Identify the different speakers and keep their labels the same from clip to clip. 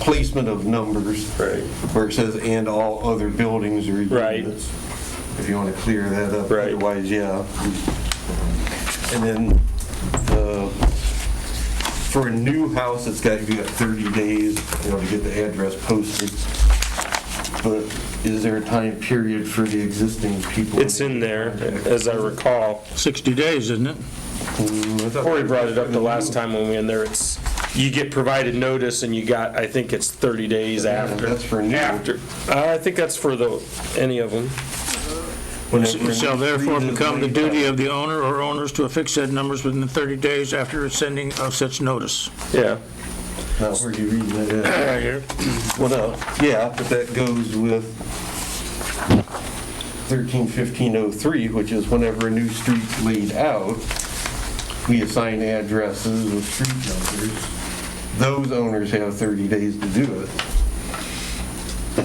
Speaker 1: placement of numbers.
Speaker 2: Right.
Speaker 1: Where it says, and all other buildings or
Speaker 2: Right.
Speaker 1: units. If you want to clear that up.
Speaker 2: Right.
Speaker 1: Otherwise, yeah. And then, uh, for a new house, it's got, you got 30 days, you know, to get the address posted. But is there a time period for the existing people?
Speaker 2: It's in there, as I recall.
Speaker 3: 60 days, isn't it?
Speaker 2: Corey brought it up the last time when we were in there. It's, you get provided notice and you got, I think it's 30 days after.
Speaker 1: that's for new.
Speaker 2: After. Uh, I think that's for the, any of them.
Speaker 1: Whenever-
Speaker 3: Shall therefore become the duty of the owner or owners to affix said numbers within 30 days after sending of such notice.
Speaker 2: Yeah.
Speaker 1: Now, where you reading that at?
Speaker 3: Right here.
Speaker 1: Well, no, yeah, but that goes with 131503, which is whenever a new street's laid out, we assign addresses with street numbers. Those owners have 30 days to do it.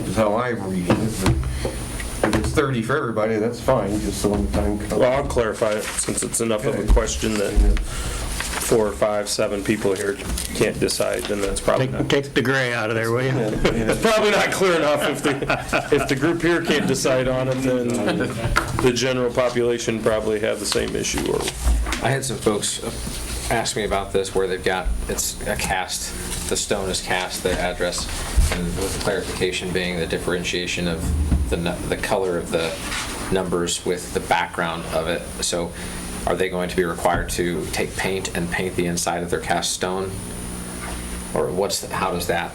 Speaker 1: Is how I'm reading it. but If it's 30 for everybody, that's fine, just so when the time comes.
Speaker 2: Well, I'll clarify it since it's enough of a
Speaker 1: Okay.
Speaker 2: question that four or five, seven people here can't decide, then that's probably
Speaker 3: Take,
Speaker 2: not.
Speaker 3: take the gray out of there, will you?
Speaker 2: It's probably not clear enough if the, if the group here can't decide on it, then the general population probably have the same issue or
Speaker 4: I had some folks uh, ask me about this, where they've got, it's a cast, the stone is cast, the address, and with the clarification being the differentiation of the, nu- the color of the numbers with the background of it. So are they going to be required to take paint and paint the inside of their cast stone? Or what's, how does that?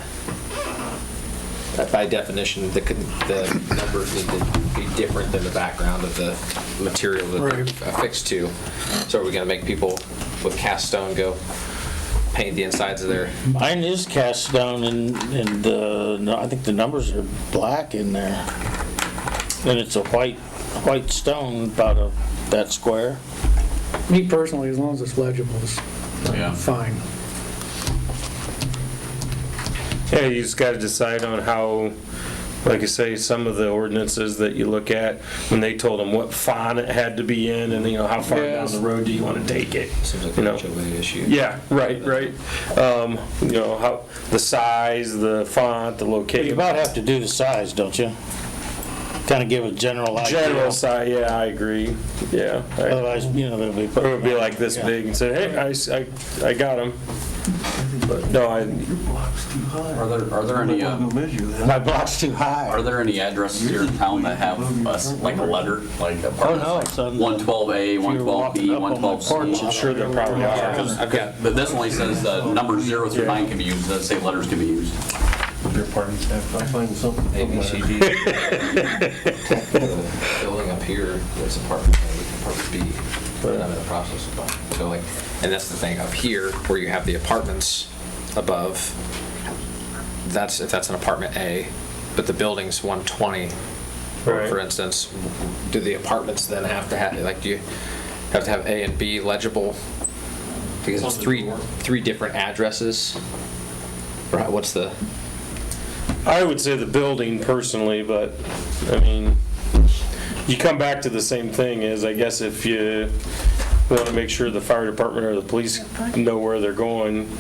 Speaker 4: That By definition, the, con- the numbers need to be different than the background of the material that they're affixed to. So are we gonna make people with cast stone go paint the insides of their,
Speaker 5: Mine is cast down and, and, uh, no, I think the numbers are black in there. And it's a white, white stone about a, that square.
Speaker 6: Me personally, as long as it's legible, is fine.
Speaker 2: Yeah, you just gotta decide on how, like I say, some of the ordinances that you look at, when they told them what font it had to be in, and you know, how far down
Speaker 6: Yes.
Speaker 2: the road do you wanna take it?
Speaker 4: seems like
Speaker 2: you
Speaker 4: an
Speaker 2: know?
Speaker 4: HOA issue.
Speaker 2: Yeah, right, right. Um, you know, how, the size, the font, the
Speaker 5: You
Speaker 2: location.
Speaker 5: about have to do the size, don't you? Kind of give a general idea.
Speaker 2: General size, yeah, I agree, yeah. I-
Speaker 5: Otherwise, you know, they'll be.
Speaker 2: It would be like this big and say, hey, I, s- I- I got them. But no, I,
Speaker 7: Are there, are there any, uh,
Speaker 5: My block's too high.
Speaker 7: are there any addresses here in town that have us, like a letter, like
Speaker 5: Oh,
Speaker 7: apartment?
Speaker 5: no, it's on.
Speaker 7: 112A,
Speaker 5: If you were walking
Speaker 7: 112B,
Speaker 5: up on my porch, I'm
Speaker 7: 112C?
Speaker 2: sure there probably are.
Speaker 7: I've got, but this only says uh, number zero through nine can be used, doesn't say letters can be used.
Speaker 1: I find something.
Speaker 4: A, B, C, D. The Building up here, that's apartment A, apartment B, and I'm in the process of buying. So like, and that's the thing, up here, where you have the apartments above, that's, if that's an apartment A, but the building's 120,
Speaker 2: Right.
Speaker 4: for for instance, do the apartments then have to have, like, do you have to have A and B legible? Because it's three, three different addresses? Or how- what's the?
Speaker 2: I would say the building personally, but, I mean, you come back to the same thing is, I guess if you want to make sure the fire department or the police know where they're going,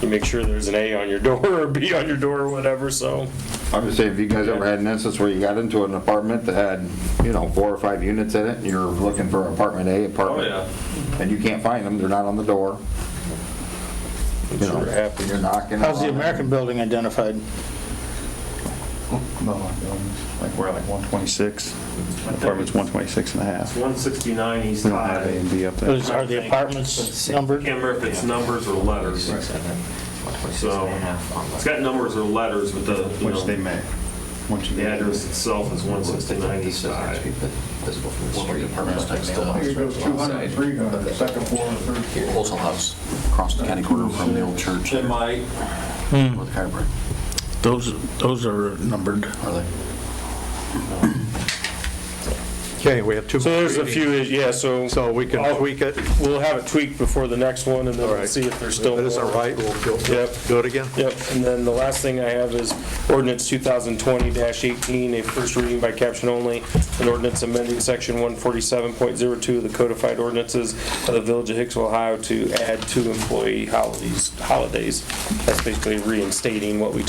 Speaker 2: you make sure there's an A on your door or a B on your door or whatever, so.
Speaker 8: I would say, if you guys ever had an instance where you got into an apartment that had, you know, four or five units in it, and you're looking for apartment A, apartment, and you can't find them, they're not on the door,
Speaker 2: I'm
Speaker 8: you know,
Speaker 2: sure it happens.
Speaker 8: you're knocking.
Speaker 5: How's the
Speaker 8: on it.
Speaker 5: American building identified?
Speaker 9: No, like, we're like 126, apartment's 126 and a half.
Speaker 10: 169 East
Speaker 9: We don't have A
Speaker 10: High.
Speaker 9: and B up there.
Speaker 5: Is- Are the apartments numbered?
Speaker 10: Can't remember if it's numbers or letters. So, It's got numbers or letters, but the, you
Speaker 9: Which they
Speaker 10: know,
Speaker 9: may, once you
Speaker 10: the
Speaker 9: get address.
Speaker 10: address itself is 169 East High.
Speaker 4: Visible from the street.
Speaker 7: Here
Speaker 4: goes 200,
Speaker 7: 300, second floor, third floor. Wholesale House, across the county corner from the old church,
Speaker 10: It
Speaker 7: there,
Speaker 10: might,
Speaker 7: with the chiropractor,
Speaker 3: Those, those are numbered.
Speaker 7: are they?
Speaker 3: Okay, we have two.
Speaker 2: So there's a few, yeah, so.
Speaker 9: So we can
Speaker 2: I'll-
Speaker 9: tweak it?
Speaker 2: We'll have it tweaked before the next one and then we'll
Speaker 9: right.
Speaker 2: see if there's still. more.
Speaker 9: we'll
Speaker 2: Yep.
Speaker 9: do it again.
Speaker 2: Yep, and then the last thing I have is ordinance 2020-18, a first reading by caption only, an ordinance amending section 147.02 of the codified ordinances of the Village of Hicksville, Ohio to add two employee holidays. Holidays. That's basically reinstating what we